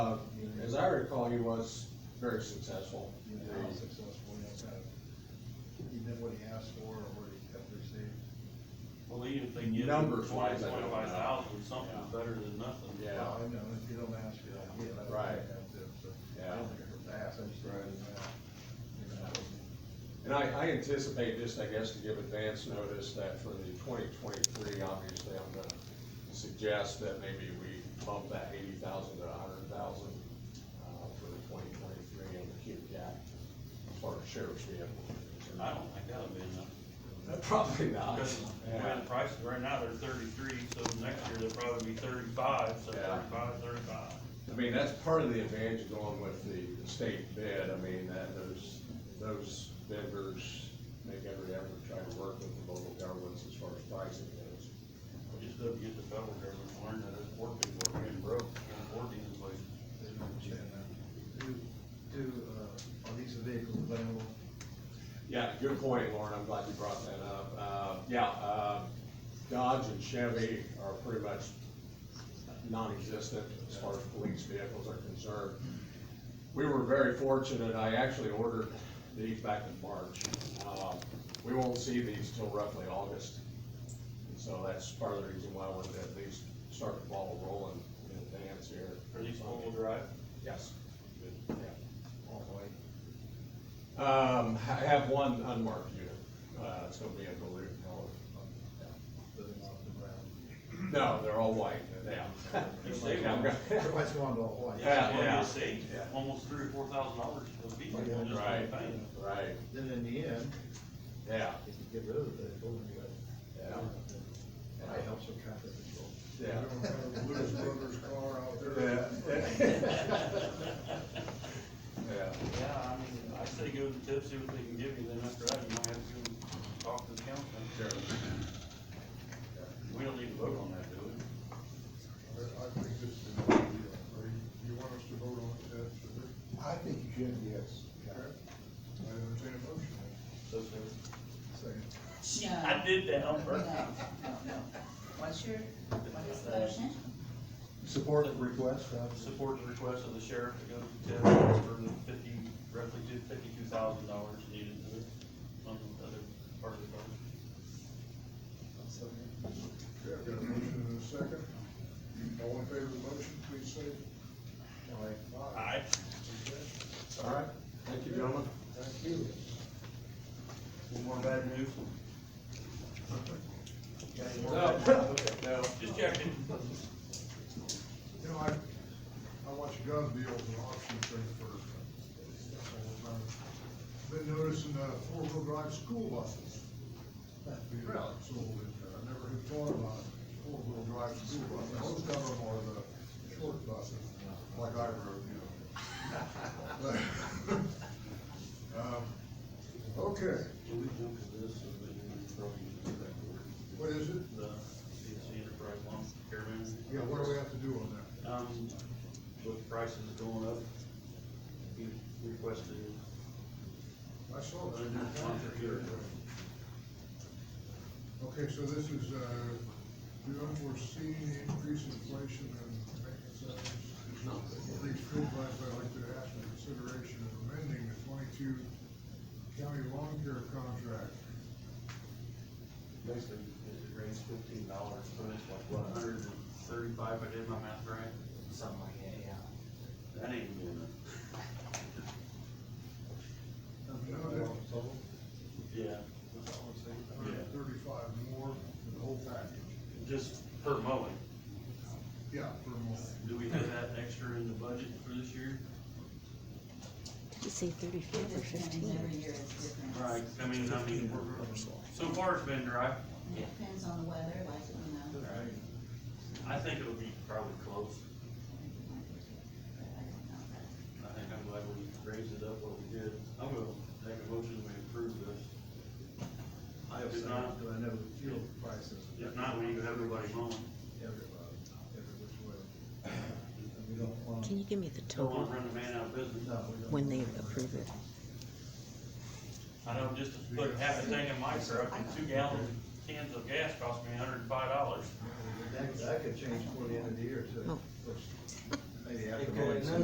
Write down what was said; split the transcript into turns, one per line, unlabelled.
Uh, as I recall, he was very successful.
you know, how successful he has had. He did what he asked for, or what he kept received.
Well, even if they get
Numbers
twenty,
wise, I don't know.
twenty-five thousand, something's
Yeah.
better than nothing.
Yeah.
I know, if you don't ask, you don't get. I don't
Right.
think that's it, so. I
Yeah.
don't think it's asked, I just.
Right.
You know,
And I, I anticipate just, I guess, to give advance notice that for the twenty twenty-three, obviously, I'm gonna suggest that maybe we bump that eighty thousand to a hundred thousand, uh, for the twenty twenty-three on the Q cap, as far as sheriff's vehicle. is concerned.
I don't think that'll be enough,
Probably not.
because the way
Yeah.
the prices, right now, they're thirty-three, so next year they'll probably be thirty-five, so
Yeah.
thirty-five, thirty-five.
I mean, that's part of the advantage of going with the the state bid, I mean, that those, those vendors make every effort to try to work with the local governments as far as pricing goes.
We just don't get the federal government to learn that it's working, we're getting broke, can't afford these places.
They don't understand that. Do, do, uh, are these vehicles available?
Yeah, good point, Lauren, I'm glad you brought that up. Uh, yeah, uh, Dodge and Chevy are pretty much non-existent as far as police vehicles are concerned. We were very fortunate, I actually ordered these back in March. Uh, We won't see these till roughly August, and so that's part of the reason why I wanted to at least start the ball rolling in advance here.
Are these four-wheel drive?
Yes. Yeah.
All the way.
Um, I have one unmarked unit, uh, it's gonna be a blue color.
Living off the ground.
No, they're all white now.
You say
I'm gonna-
Everybody's going to all white.
Yeah,
Well,
yeah.
you save
Yeah.
almost three or four thousand dollars for the vehicle,
Yeah.
just
Right.
one thing.
Right,
Then in the end,
yeah,
if you get rid of the vehicle, then you got.
Yeah.
And it helps with traffic control.
yeah.
Lewis Brothers car out there.
Yeah,
Yeah, I mean, I say go to the tip, see what they can give you, then after that, you might have to go talk to the council.
sure.
We don't need to vote on that, do we?
I I think this is a good deal. Are you, you want us to vote on it, Ted, should we?
I think you should, yes.
Okay. I entertain a motion.
So,
Second.
No.
I did that on
No, no,
purpose.
no. What's your, what is the motion?
Support the request, uh,
Support the request of the sheriff to go to TIF for the fifty, roughly two, fifty-two thousand dollars needed to it on the other part of the budget.
Okay, I've got a motion and a second. All in favor of the motion, please say aye.
Aye.
Okay.
All right, thank you, gentlemen.
Thank you.
One more bad news?
No, no.
Just checking.
You know, I, I watch gun deals and auction thing for all the time. Been noticing, uh, four-wheel drive school buses. being
Really?
Sold in there. I never had thought about four-wheel drive school buses. Most of them are the short buses, like I rode, you know. Um, Okay,
Can we jump to this, so that we can throw you into that board?
what is it?
The CNC Enterprise Loan Chairman?
Yeah, what do we have to do on that?
Um, with prices going up, he requested
I saw that. in your contract here. Okay, so this is, uh, do unforeseen increase in inflation and maintenance items. These school buys, I'd like to ask for consideration of amending the twenty-two county lawn care contract.
basically, it raised fifteen dollars, so it's like, what, a hundred and thirty-five, I did my math right?
something like that, yeah.
That ain't good enough. Yeah.
Hundred and thirty-five more for the whole package.
Just per mowing,
Yeah, for more.
do we have that extra in the budget for this year?
Just say
It
thirty-five or
just depends, every
fifteen.
year it's different.
I mean, I mean, we're, so far it's been dry.
And It depends on the weather, like, you know.
Alright. I think it'll be probably close,
but I don't know that.
I think I'm glad we raised it up what we did, I'm gonna make a motion to approve this.
I have
If
some,
not-
but I know the fuel prices.
If not, we have everybody mowing.
Everybody, every which way. And we don't want.
Can you give me the
Don't wanna
total
run the man out of business.
No, we don't.
when they approve it?
I know just to put half a thing in my truck and two gallon cans of gas cost me hundred and five dollars.
That, that could change before the end of the year too.
Oh.
Which, maybe after.
It could,
mowing
no,
season.